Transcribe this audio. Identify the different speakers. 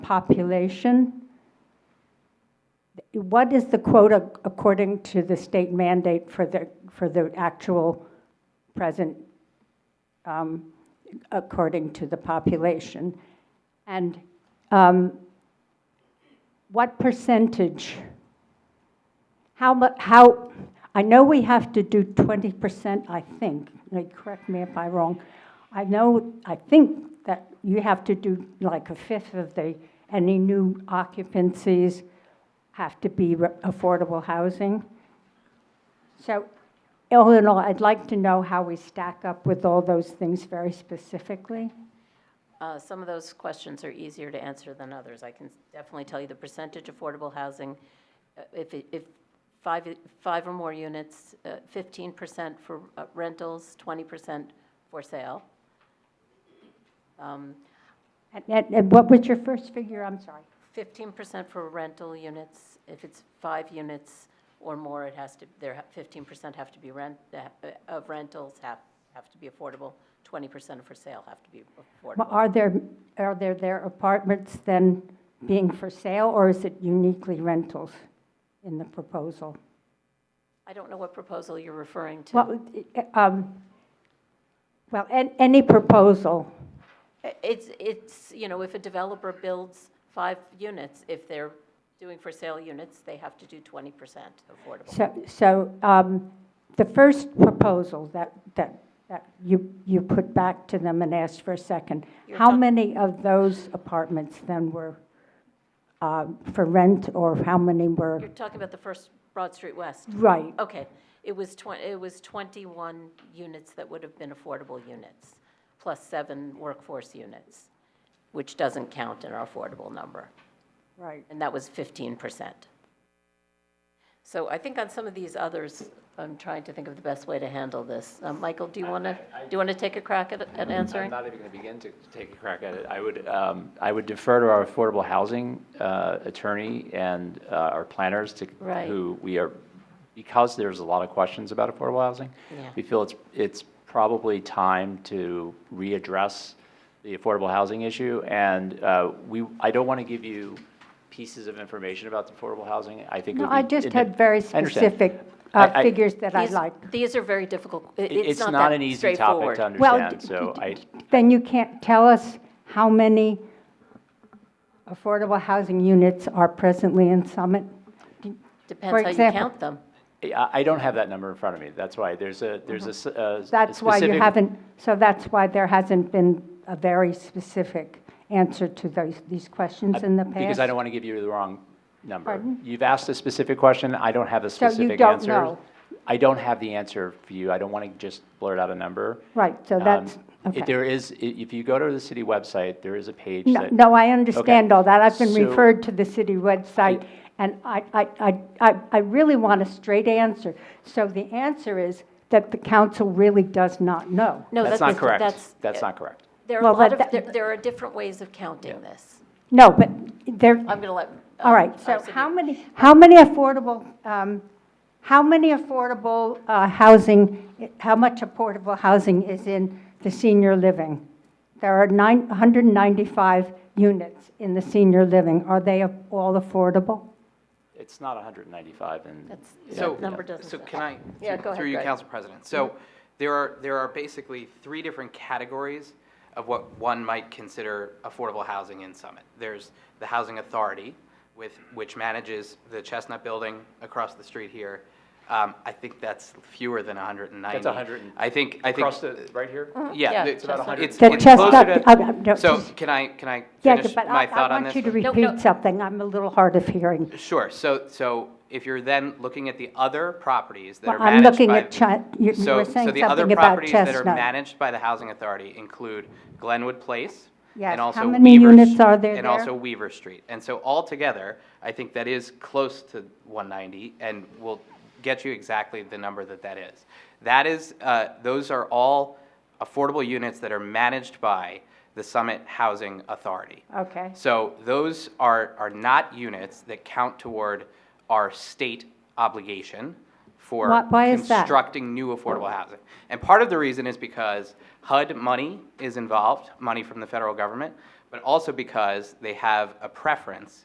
Speaker 1: population? What is the quota according to the state mandate for the, for the actual present, um, according to the population? And um, what percentage? How mu, how, I know we have to do 20%, I think, Like, correct me if I'm wrong. I know, I think that you have to do like a fifth of the, any new occupancies have to be re- affordable housing. So all in all, I'd like to know how we stack up with all those things very specifically.
Speaker 2: Uh, Some of those questions are easier to answer than others. I can definitely tell you the percentage affordable housing, uh, if, it- if five, five or more units, uh, 15% for uh, rentals, 20% for sale. Um,
Speaker 1: And- And and what was your first figure? I'm sorry.
Speaker 2: 15% for rental units, if it's five units or more, it has to, there, ha- 15% have to be rent, uh, of rentals have, have to be affordable, 20% for sale have to be
Speaker 1: Well,
Speaker 2: affordable.
Speaker 1: Are there, are there their apartments then being for sale, or is it uniquely rentals in the proposal?
Speaker 2: I don't know what proposal you're referring to.
Speaker 1: Well, it- um, well, an- any proposal,
Speaker 2: It's, it's, you know, if a developer builds five units, if they're doing for sale units, they have to do 20% affordable.
Speaker 1: so, so um, the first proposal that, that, that you, you put back to them and asked for a second,
Speaker 2: You're
Speaker 1: how
Speaker 2: talk-
Speaker 1: many of those apartments then were um, for rent, or how many
Speaker 2: You're
Speaker 1: were,
Speaker 2: talking about the first Broad Street West?
Speaker 1: right?
Speaker 2: Okay, it was 20, it was 21 units that would have been affordable units, plus seven workforce units, which doesn't count in our affordable number.
Speaker 1: Right.
Speaker 2: and that was fifteen percent. So I think on some of these others, I'm trying to think of the best way to handle this. Um, Michael, do you want to, do you want to take a crack at, at
Speaker 3: I'm
Speaker 2: answering?
Speaker 3: not even going to begin to take a crack at it. I would, um, I would defer to our affordable housing uh, attorney and uh, our planners to,
Speaker 2: Right.
Speaker 3: who we are, because there's a lot of questions about affordable housing.
Speaker 2: Yeah.
Speaker 3: We feel it's, it's probably time to readdress the affordable housing issue. And uh, we, I don't want to give you pieces of information about the affordable housing. I think it
Speaker 1: No,
Speaker 3: would be.
Speaker 1: I just
Speaker 3: it-
Speaker 1: had very
Speaker 3: I understand.
Speaker 1: specific
Speaker 3: I-
Speaker 1: uh,
Speaker 3: I-
Speaker 1: figures that I
Speaker 2: These-
Speaker 1: like.
Speaker 2: These are very difficult, it-
Speaker 3: it-
Speaker 2: it's not
Speaker 3: not
Speaker 2: that
Speaker 3: an easy topic
Speaker 2: straightforward.
Speaker 3: to
Speaker 1: Well,
Speaker 3: understand, so I.
Speaker 1: Then you can't tell us how many affordable housing units are presently in Summit? for
Speaker 2: Depends how you
Speaker 1: example.
Speaker 2: count them.
Speaker 3: I I don't have that number in front of me. That's why there's a, there's a s- a.
Speaker 1: Mm-hmm. That's why you
Speaker 3: specific-
Speaker 1: haven't, so that's why there hasn't been a very specific answer to those, these questions in the past?
Speaker 3: Because I don't want to give you the wrong number.
Speaker 1: Pardon?
Speaker 3: You've asked a specific question. I don't have a
Speaker 1: you
Speaker 3: specific
Speaker 1: don't
Speaker 3: answer.
Speaker 1: know.
Speaker 3: I don't have the answer for you. I don't want to just blurt out a number.
Speaker 1: Right, so
Speaker 3: Um,
Speaker 1: that's,
Speaker 3: if
Speaker 1: okay.
Speaker 3: There is, i- if you go to the city website, there is a page
Speaker 1: No,
Speaker 3: that.
Speaker 1: no, I understand all that. I've been
Speaker 3: So-
Speaker 1: referred to the city website, and I, I, I, I I really want a straight answer. So the answer is that the council really does not know.
Speaker 2: No,
Speaker 3: That's
Speaker 2: that's-
Speaker 3: not correct.
Speaker 2: that's-
Speaker 3: That's not correct.
Speaker 2: There are a
Speaker 1: Well,
Speaker 2: lot
Speaker 1: that-
Speaker 2: of, there, there are different ways of counting this. Um,
Speaker 1: No, but there,
Speaker 2: I'm going to let.
Speaker 1: all right, so how many, how many affordable, um, how many affordable uh, housing, how much affordable housing is in the senior living? There are nine, 195 units in the senior living. Are they all affordable?
Speaker 3: It's not 195 and.
Speaker 2: That's-
Speaker 4: So,
Speaker 2: That number doesn't
Speaker 4: so
Speaker 2: sound-
Speaker 4: can I?
Speaker 2: Yeah, go ahead,
Speaker 4: Through you,
Speaker 2: Greg.
Speaker 4: Council President.
Speaker 1: Mm-hmm.
Speaker 4: So there are, there are basically three different categories of what one might consider affordable housing in Summit. There's the Housing Authority, with, which manages the Chestnut Building across the street here. Um, I think that's fewer than 190.
Speaker 3: That's 100.
Speaker 4: I think, I think.
Speaker 3: Across the, right here?
Speaker 2: Yeah,
Speaker 4: Yeah. the-
Speaker 2: it's about 100.
Speaker 4: it's-
Speaker 1: The
Speaker 4: it's
Speaker 1: Chestnut,
Speaker 4: closer to-
Speaker 1: uh, uh, no,
Speaker 4: So
Speaker 1: just-
Speaker 4: can I, can I
Speaker 1: yeah,
Speaker 4: finish
Speaker 1: but
Speaker 4: my
Speaker 1: I, I
Speaker 4: thought on
Speaker 1: want
Speaker 4: this?
Speaker 1: you to
Speaker 2: No, no.
Speaker 1: repeat something. I'm a little hard of hearing.
Speaker 4: Sure, so, so if you're then looking at the other properties that are
Speaker 1: Well, I'm
Speaker 4: managed by.
Speaker 1: looking at Chut, you you
Speaker 4: So,
Speaker 1: were
Speaker 4: so
Speaker 1: saying
Speaker 4: the other
Speaker 1: something about
Speaker 4: properties that are
Speaker 1: Chestnut.
Speaker 4: managed by the Housing Authority include Glenwood Place.
Speaker 1: Yes,
Speaker 4: and also
Speaker 1: how many
Speaker 4: Weaver
Speaker 1: units
Speaker 4: Sh-
Speaker 1: are there
Speaker 4: And
Speaker 1: there?
Speaker 4: also Weaver Street. And so altogether, I think that is close to 190, and we'll get you exactly the number that that is. That is, uh, those are all affordable units that are managed by the Summit Housing Authority.
Speaker 1: Okay.
Speaker 4: So those are, are not units that count toward our state obligation for
Speaker 1: Why- why is that?
Speaker 4: constructing new affordable housing. And part of the reason is because HUD money is involved, money from the federal government, but also because they have a preference